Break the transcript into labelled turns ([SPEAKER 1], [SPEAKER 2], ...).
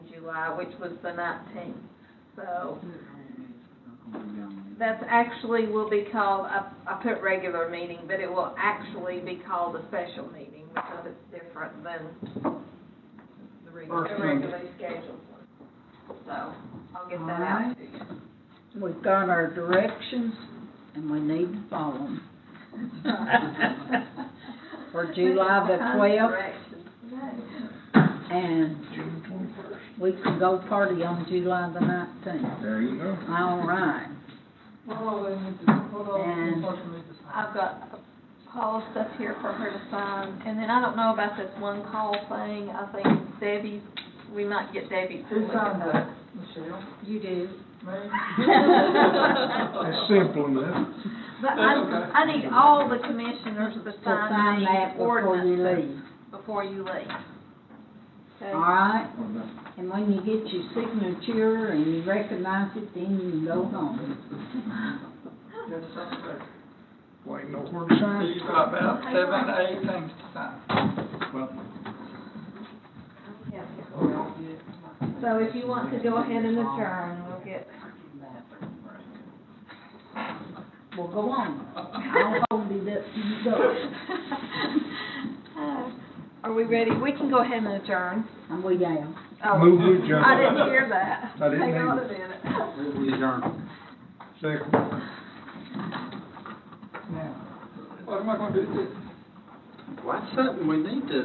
[SPEAKER 1] July, which was the nineteenth. So that's actually will be called, I, I put regular meeting, but it will actually be called a special meeting because it's different than the reg-
[SPEAKER 2] First
[SPEAKER 1] the
[SPEAKER 2] meeting.
[SPEAKER 1] regularly scheduled one. So I'll get that
[SPEAKER 2] All
[SPEAKER 1] out
[SPEAKER 2] right.
[SPEAKER 1] to you.
[SPEAKER 2] We've got our directions and we need to follow them. For July the twelfth
[SPEAKER 1] Directions.
[SPEAKER 2] and
[SPEAKER 3] June twenty-first.
[SPEAKER 2] we can go party on July the nineteenth.
[SPEAKER 3] There you go.
[SPEAKER 2] All right. And
[SPEAKER 1] I've got Paul's stuff here for her to sign, and then I don't know about this one call thing, I think Debbie, we might get Debbie to
[SPEAKER 4] Who
[SPEAKER 1] look at
[SPEAKER 4] signed
[SPEAKER 1] that.
[SPEAKER 4] that, Michelle?
[SPEAKER 2] you do.
[SPEAKER 4] Me?
[SPEAKER 3] That's simple enough.
[SPEAKER 1] But I, I need all the commissioners to
[SPEAKER 2] To
[SPEAKER 1] sign
[SPEAKER 2] sign
[SPEAKER 1] the
[SPEAKER 2] that before you
[SPEAKER 1] ordinance
[SPEAKER 2] leave.
[SPEAKER 1] before you leave. Okay?
[SPEAKER 2] All right?
[SPEAKER 3] Or not.
[SPEAKER 2] And when you get your signature and you recognize it, then you can go home.
[SPEAKER 4] Yes, sir.
[SPEAKER 3] Well, ain't nowhere to sign.
[SPEAKER 4] You've got about seven, to eight things to sign.
[SPEAKER 3] Well,
[SPEAKER 1] So if you want to go ahead and adjourn, we'll get.
[SPEAKER 2] Well, go on. I'll hold it up till you go.
[SPEAKER 1] Uh, Are we ready? We can go ahead and adjourn.
[SPEAKER 2] And we down.
[SPEAKER 1] Oh,
[SPEAKER 3] Move to adjourn.
[SPEAKER 1] I didn't hear that.
[SPEAKER 3] I didn't
[SPEAKER 1] Hang on
[SPEAKER 3] either.
[SPEAKER 1] a minute.
[SPEAKER 3] second.
[SPEAKER 4] Now, what am I gonna do?
[SPEAKER 5] Well, that's something we need to